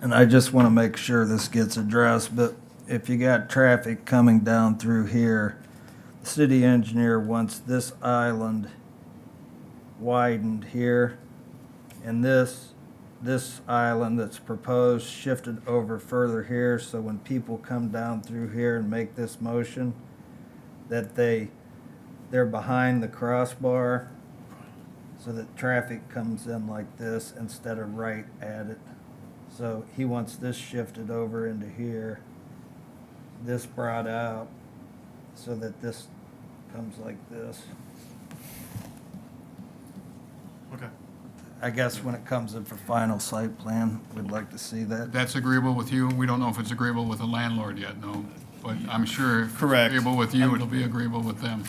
And I just want to make sure this gets addressed, but if you got traffic coming down through here, the city engineer wants this island widened here and this, this island that's proposed shifted over further here, so when people come down through here and make this motion, that they, they're behind the crossbar so that traffic comes in like this instead of right at it. So he wants this shifted over into here, this brought out, so that this comes like this. Okay. I guess when it comes in for final site plan, we'd like to see that. That's agreeable with you. We don't know if it's agreeable with the landlord yet, no. But I'm sure if it's Correct. agreeable with you, it'll be agreeable with them.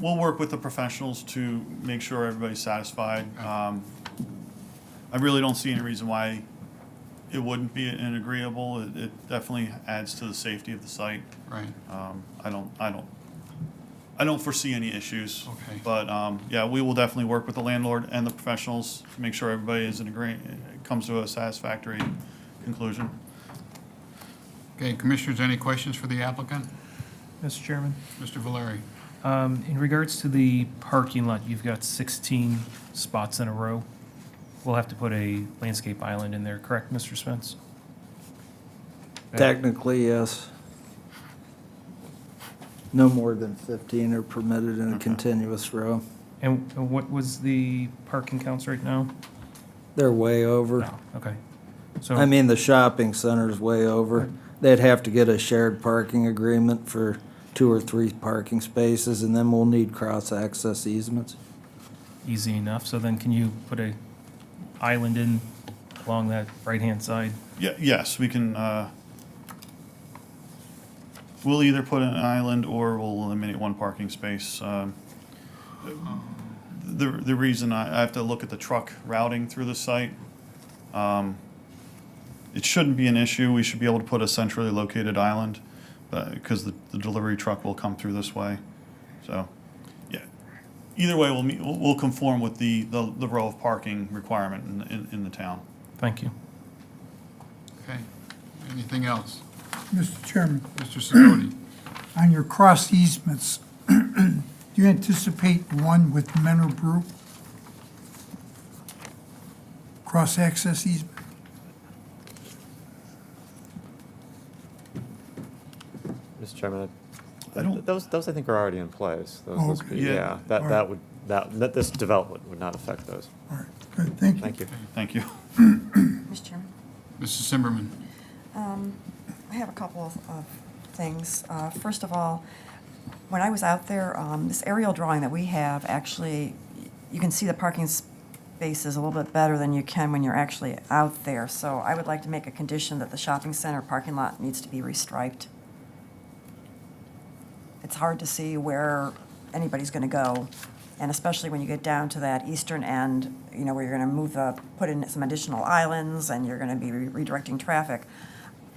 We'll work with the professionals to make sure everybody's satisfied. Um, I really don't see any reason why it wouldn't be an agreeable. It- It definitely adds to the safety of the site. Right. Um, I don't, I don't, I don't foresee any issues. Okay. But, um, yeah, we will definitely work with the landlord and the professionals to make sure everybody is in agree, comes to a satisfactory conclusion. Okay, commissioners, any questions for the applicant? Mr. Chairman, Mr. Valeri? um, in regards to the parking lot, you've got 16 spots in a row. We'll have to put a landscape island in there, correct, Mr. Spence? Technically, yes. No more than 15 are permitted in a continuous row. And and what was the parking counts right now? They're way over. No, okay. So, I mean, the shopping center's way over. They'd have to get a shared parking agreement for two or three parking spaces, and then we'll need cross-access easements. easy enough, so then can you put a island in along that right-hand side? Ye- yes, we can, uh, we'll either put an island or we'll eliminate one parking space. Um, The, the reason I, I have to look at the truck routing through the site, um, it shouldn't be an issue. We should be able to put a centrally located island, because the, the delivery truck will come through this way. So, yeah, either way, we'll, meet- we'll we'll conform with the, the the row of parking requirement in, in, in the town. Thank you. Okay, anything else? Mr. Chairman, Mr. Sidoti? on your cross easements, do you anticipate one with Menor Brew? Cross access easement? Mr. Chairman, I- I don't- those, those I think are already in place. Those- those Okay. be- Yeah. Yeah, that, All that right. would, that, that- this development would not affect those. All right, good, thank you. Thank Thank you. you. Mr. Chairman, Mrs. Zimmerman? I have a couple of- of things. Uh, First of all, when I was out there, um, this aerial drawing that we have, actually, y- you can see the parking spaces a little bit better than you can when you're actually out there. So I would like to make a condition that the shopping center parking lot needs to be restriped. It's hard to see where anybody's going to go, and especially when you get down to that eastern end, you know, where you're going to move the, put in some additional islands, and you're going to be re- redirecting traffic.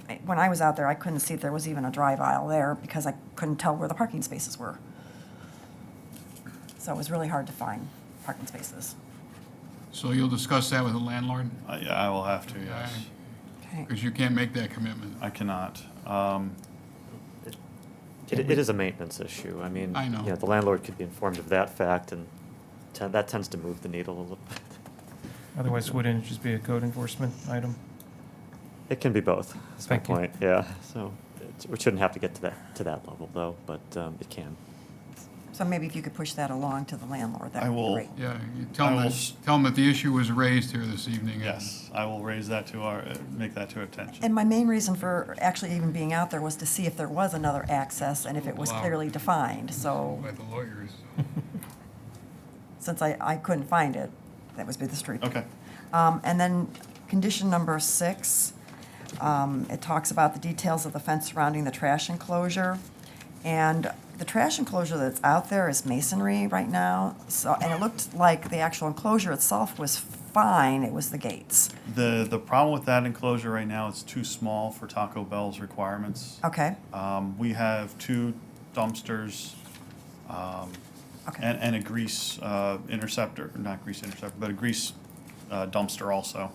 I- When I was out there, I couldn't see if there was even a drive aisle there because I couldn't tell where the parking spaces were. So it was really hard to find parking spaces. So you'll discuss that with the landlord? I, Uh, I will have to, yes. Okay. Because you can't make that commitment. I cannot. Um, It, it is a maintenance issue. I mean, I know. you the landlord could be informed of that fact and ten- that tends to move the needle a little bit. Otherwise, wouldn't it just be a code enforcement item? It can be both, That's my Thank you. point, yeah. So it's- we shouldn't have to get to that, to that level though, but um, it can. So maybe if you could push that along to the landlord, that I would be will. great. Yeah, you tell I them, will that- s- tell them that the issue was raised here this evening. yes, I will raise that to our, uh, make that to our attention. And my main reason for actually even being out there was to see if there was another access and if it was Wow. clearly defined. So By the lawyers. since I, I couldn't find it, that was be the street. Okay. Um, and then condition number six, um, it talks about the details of the fence surrounding the trash enclosure. And the trash enclosure that's out there is masonry right now, so, and it looked like the actual enclosure itself was fine, it was the gates. The, the problem with that enclosure right now, it's too small for Taco Bell's requirements. Okay, Um, we have two dumpsters, um, Okay. and, and a grease, uh, interceptor, not grease interceptor, but a grease, uh, dumpster also.